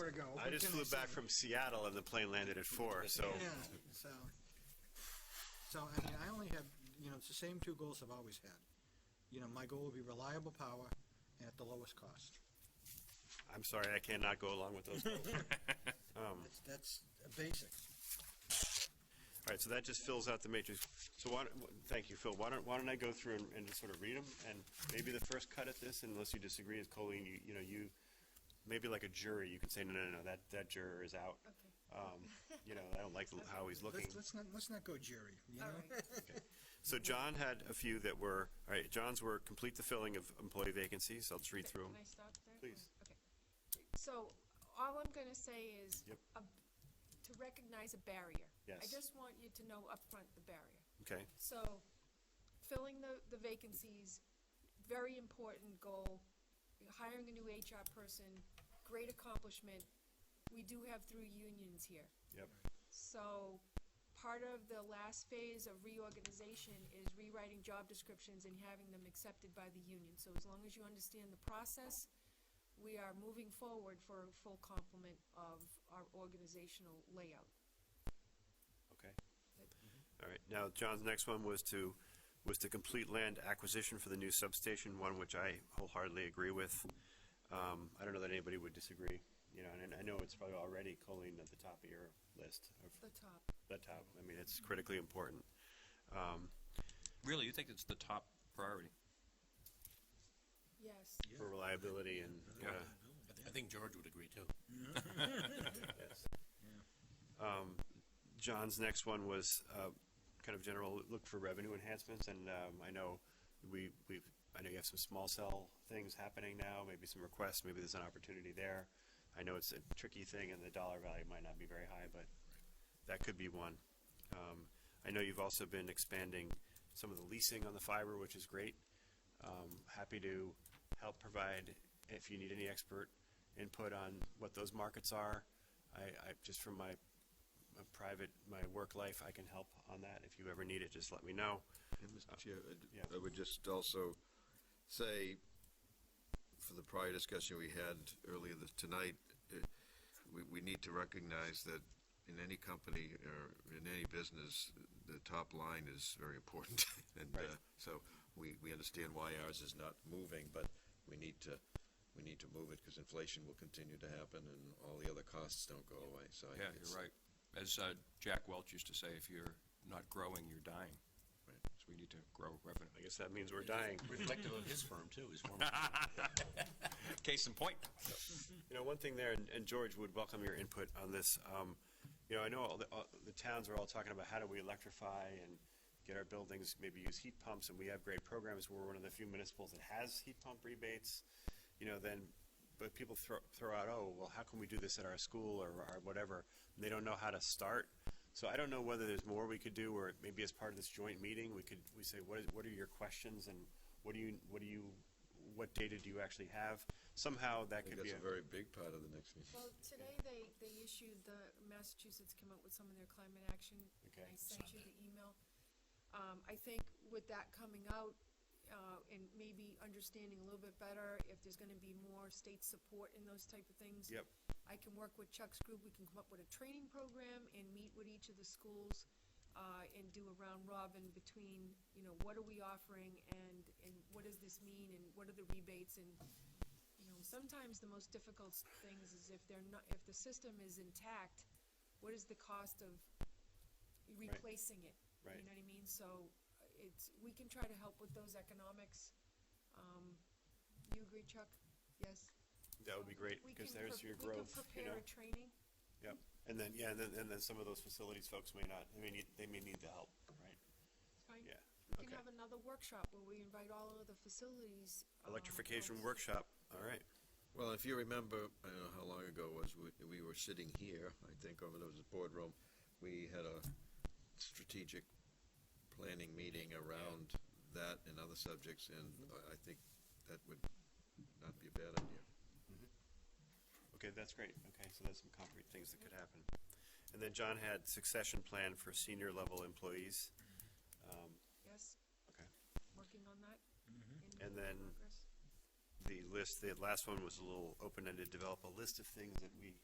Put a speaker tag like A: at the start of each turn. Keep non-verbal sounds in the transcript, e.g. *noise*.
A: ago.
B: I just flew back from Seattle and the plane landed at four, so
A: Yeah, so, so, I mean, I only have, you know, it's the same two goals I've always had. You know, my goal would be reliable power and at the lowest cost.
B: I'm sorry, I cannot go along with
A: *laughs*
B: those. goals. Um,
A: That's, that's a basic.
B: All right, so that just fills out the matrix. So why, don't- wh- thank you, Phil. Why don't, why don't I go through and, and just sort of read them? And maybe the first cut at this, unless you disagree, is Colleen, you, you know, you, maybe like a jury, you could say, no, no, no, that, that juror is out. Um, You know, I
A: *laughs*
B: don't like the- how he's looking.
A: Let's, let's not, let's not go Jerry, you know?
B: So John had a few that were, all right, John's were complete the filling of employee vacancies. I'll just read through them.
C: Can I stop there?
B: Please.
C: Okay. So, all I'm gonna say is.
B: Yep.
C: a- To recognize a barrier. I
B: Yes.
C: just want you to know upfront the barrier.
B: Okay,
C: So, filling the, the vacancies, very important goal. Hiring a new HR person, great accomplishment. We do have through unions here.
B: yep,
C: So, part of the last phase of reorganization is rewriting job descriptions and having them accepted by the union. So as long as you understand the process, we are moving forward for a full complement of our organizational layout.
B: okay. All right, now John's next one was to, was to complete land acquisition for the new substation, one which I wholeheartedly agree with. Um, I don't know that anybody would disagree, you know, and I know it's probably already Colleen at the top of your list, of
C: The top.
B: the top. I mean, it's critically important. Um,
D: Really, you think it's the top priority?
C: Yes.
B: for reliability and, uh, yeah.
E: I thi- I think George would agree too.
B: Um, John's next one was uh, kind of general, look for revenue enhancements, and um, I know we, we've, I know you have some small cell things happening now, maybe some requests, maybe there's an opportunity there. I know it's a tricky thing, and the dollar value might not be very high, but that could be one. Um, I know you've also been expanding some of the leasing on the fiber, which is great. Um, happy to help provide, if you need any expert input on what those markets are. I, I, just from my my private, my work life, I can help on that. If you ever need it, just let me know.
F: And Mr. Chair, I d-
B: yeah.
F: I would just also say, for the prior discussion we had earlier this, tonight, eh, we, we need to recognize that in any company or in any business, the top line is very important. *laughs* And,
B: Right.
F: uh, so we, we understand why ours is not moving, but we need to, we need to move it because inflation will continue to happen and all the other costs don't go away, so. I-
D: Oh, Yeah,
F: it's-
D: you're right. As uh, Jack Welch used to say, if you're not growing, you're dying.
F: Right.
D: So we need to grow revenue.
B: I guess that means we're dying.
E: Reflective of his firm too, his former.
D: Case in point.
B: You know, one thing there, and, and George would welcome your input on this. Um, you know, I know all the, all the towns are all talking about how do we electrify and get our buildings, maybe use heat pumps, and we have great programs. We're one of the few municipals that has heat pump rebates. You know, then, but people throw, throw out, oh, well, how can we do this at our school or, or whatever? And they don't know how to start. So I don't know whether there's more we could do, or maybe as part of this joint meeting, we could, we say, what is, what are your questions and what do you, what do you, what data do you actually have? Somehow that
F: I think
B: could be a
F: that's a very big part of the next meeting.
C: Well, today they, they issued, the Massachusetts came out with some of their climate action.
B: Okay.
C: I sent you the email. Um, I think with that coming out, uh, and maybe understanding a little bit better if there's gonna be more state support in those type of things.
B: Yep.
C: I can work with Chuck's group, we can come up with a training program and meet with each of the schools, uh, and do a round robin between, you know, what are we offering and, and what does this mean and what are the rebates and you know, sometimes the most difficult s- things is if they're not, if the system is intact, what is the cost of replacing it?
B: Right.
C: You know what I mean? So uh, it's, we can try to help with those economics. Um, you agree, Chuck? Yes? Um,
B: That would be great,
C: We
B: because
C: can
B: there's
C: pre-
B: your growth,
C: We
B: you
C: can
B: know?
C: prepare a training.
B: Yep, and then, yeah, and then, and then some of those facilities folks may not, they may need, they may need the help, right?
C: Fine.
B: Yeah,
C: We
B: okay.
C: can have another workshop where we invite all of the facilities. um,
B: Electrification
C: folks.
B: workshop, all right,
F: Well, if you remember, I don't know how long ago it was, we, we were sitting here, I think, over there was a boardroom. We had a strategic planning meeting around that and other subjects, and I, I think that would not be a bad idea.
B: okay, that's great, okay, so that's some concrete things that could happen. And then John had succession plan for senior level employees, Um,
C: Yes,
B: okay.
C: working on that. in
B: And then-
C: progress.
B: The list, the last one was a little open-ended, develop a list of things that we